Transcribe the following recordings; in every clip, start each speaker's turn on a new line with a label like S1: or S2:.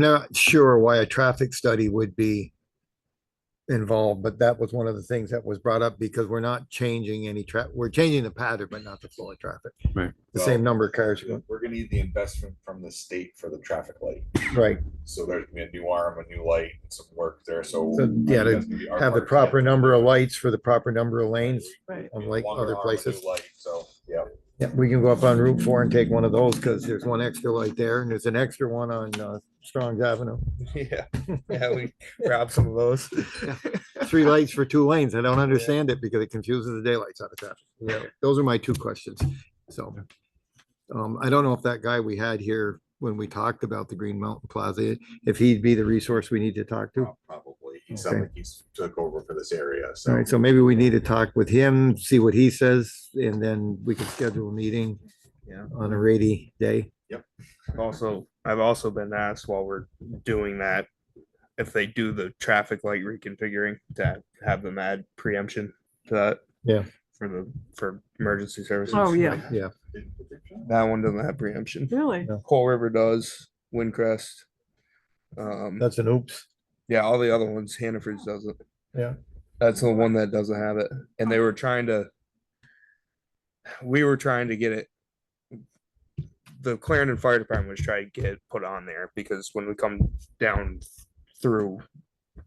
S1: not sure why a traffic study would be involved, but that was one of the things that was brought up because we're not changing any tra, we're changing the pattern, but not the flow of traffic.
S2: Right.
S1: The same number of cars, going-
S3: We're gonna need the investment from the state for the traffic light.
S1: right,
S3: So there's gonna be a new arm, a new light, and some work there, so.
S1: So, yeah, to
S3: that's gonna be our
S1: have the
S3: part.
S1: proper number of lights for the proper number of lanes,
S4: Right.
S1: unlike
S3: Longer
S1: other
S3: arm, a new
S1: places.
S3: light, So, yeah,
S1: Yeah, we can go up on Route Four and take one of those, because there's one extra light there, and there's an extra one on, uh, Strong's Avenue.
S5: Yeah, yeah, we grab some of those.
S1: Three lights for two lanes, I don't understand it, because it confuses the daylights out of traffic.
S5: Yeah,
S1: Those are my two questions, so. Um, I don't know if that guy we had here when we talked about the Green Mountain Plaza, if he'd be the resource we need to talk to.
S5: Oh,
S3: prob- probably. He sounds
S1: Okay.
S3: like he's took over for this area,
S1: All
S3: so.
S1: right, so maybe we need to talk with him, see what he says, and then we can schedule a meeting.
S5: Yeah.
S1: On a rainy day.
S5: also, I've also been asked while we're doing that, if they do the traffic light reconfiguring, to have them add preemption to that.
S1: Yeah.
S5: For the, for emergency services.
S4: Oh, yeah,
S5: That one doesn't have preemption.
S4: really?
S5: Coal River does, Windcrest. Um,
S1: That's an oops.
S5: yeah, all the other ones, Hannaford's doesn't.
S1: Yeah.
S5: That's the one that doesn't have it, and they were trying to. We were trying to get it. The Clarendon Fire Department was trying to get it put on there because when we come down through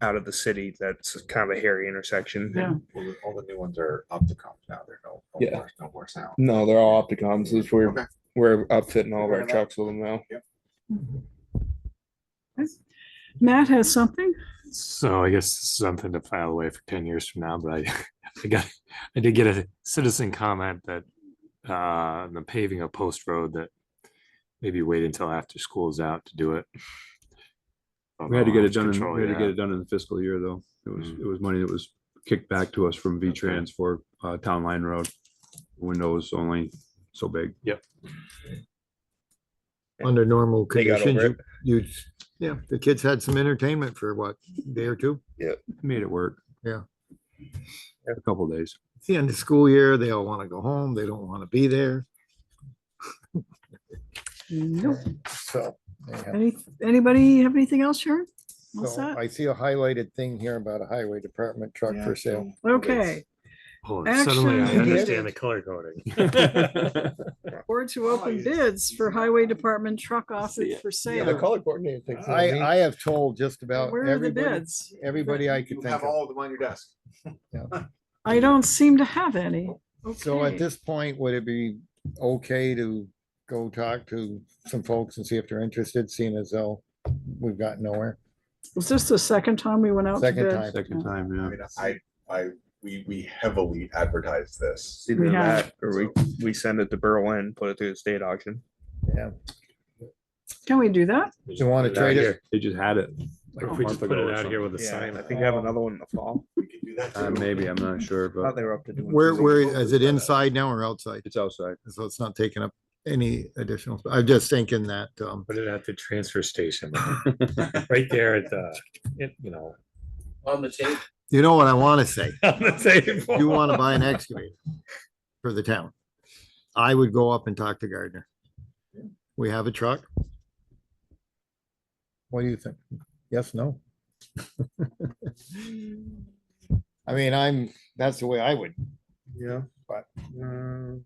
S5: out of the city, that's kind of a hairy intersection.
S4: Yeah.
S3: All the- all the new ones are opticom now, they're no, no
S5: Yeah. Um,
S3: more- no more sound.
S5: No, they're all opticoms. It's we're
S3: Okay.
S5: we're outfitting all of
S3: Fair
S5: our
S3: enough.
S5: trucks with them now.
S4: Matt has something?
S2: So I guess this is something to file away for ten years from now, but I, I got, I did get a citizen comment that uh, the paving of Post Road that maybe wait until after school is out to do it.
S6: We had to get
S2: I'll
S6: it done, in-
S2: control
S6: we had to get
S2: that.
S6: it done in the fiscal year, though. It was,
S2: Mm.
S6: it was money that was kicked back to us from V-Trans for uh, Town Line Road. Windows only so big.
S5: Yeah.
S1: Under normal
S5: They got
S1: conditions,
S5: over
S1: you, you- yeah, the kids had some entertainment for what, day or two?
S6: Made it work.
S1: Yeah.
S6: A couple days.
S1: It's the end of school year, they all want to go home, they don't want to be there.
S4: Nope.
S1: So. yeah.
S4: Any, anybody have anything else, Sharon? All
S1: So
S4: set?
S1: I see a highlighted thing here about a highway department truck for sale.
S4: Okay,
S2: Oh, Suddenly I
S4: Action.
S2: understand the color coding.
S4: board to open bids for highway department truck office for sale.
S5: color coordinator thinks.
S1: I, uh, I have told just about
S4: Where are the
S1: everybody,
S4: bids?
S1: everybody I
S3: You
S1: could think
S3: have
S1: of.
S3: all of them on your desk.
S4: I don't seem to have any.
S1: So
S4: Okay.
S1: at this point, would it be okay to go talk to some folks and see if they're interested, seeing as though we've got nowhere?
S4: Was this the second time we went out to
S1: Second
S4: bid?
S1: time.
S6: Second time,
S3: I
S6: yeah.
S3: mean, I, I, we, we heavily advertise this.
S5: Either
S4: We have-
S5: that or we we send it to Berlin, put it through the state auction.
S4: Can we do that?
S2: We
S1: You want to
S2: just put
S1: trade
S2: it out
S1: it?
S6: They just had it. like
S2: here-
S6: a
S2: if We just
S6: month
S2: put
S6: ago
S2: it
S6: or
S2: out here with a
S5: Yeah,
S2: sign.
S5: I think I have another one in the fall.
S3: We can do that
S6: something. Uh,
S3: too.
S6: Maybe, I'm not sure,
S5: I thought
S6: but
S5: they were up to doing.
S1: Where,
S5: two.
S1: where, is it inside now or outside?
S6: it's outside.
S1: So it's not taking up any additional, sp- I'm just thinking that, um,
S2: Put it at the transfer station, right there at the, it- you know.
S7: on the tape.
S1: you know what I want to say?
S2: on the table.
S1: You want to buy an excavator for the town? I would go up and talk to Gardner. We have a truck. What do you think? Yes, no? I mean, I'm, that's the way I would.
S5: Yeah.
S1: But-
S5: Mm.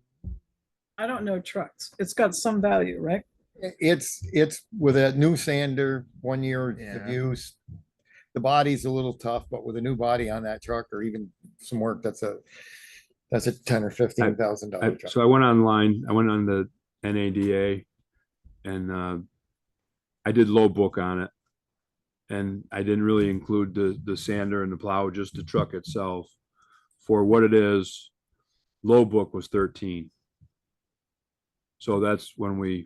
S4: I don't know trucks. It's got some value, right?
S1: I- It's, it's with a new sander, one year of
S5: Yeah.
S1: use. The body's a little tough, but with a new body on that truck or even some work, that's a, that's a ten or fifteen thousand
S6: I-
S1: dollar truck.
S6: So I went online, I went on the NADA and uh, I did low book on it. And I didn't really include the, the sander and the plow, just the truck itself. For what it is, low book was thirteen. So that's when we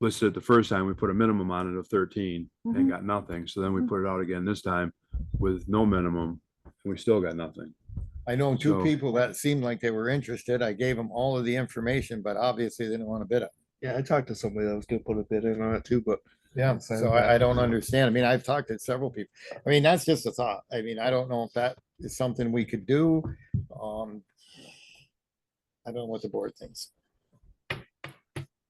S6: listed it the first time, we put a minimum on it of thirteen and got nothing. So then we put it out again this time with no minimum and we still got nothing.
S1: I know two
S6: So-
S1: people that seemed like they were interested. I gave them all of the information, but obviously they didn't want to bid it.
S5: Yeah, I talked to somebody that was gonna put a bid in on it too, but
S1: Yeah,
S5: so
S1: so I, I don't
S5: that-
S1: understand. I mean, I've talked to several people. I mean, that's just a thought. I mean, I don't know if that is something we could do. Um, I don't know what the board thinks.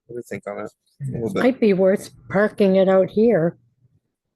S5: what do you think on it? A little bit.
S8: Might be worth parking it out here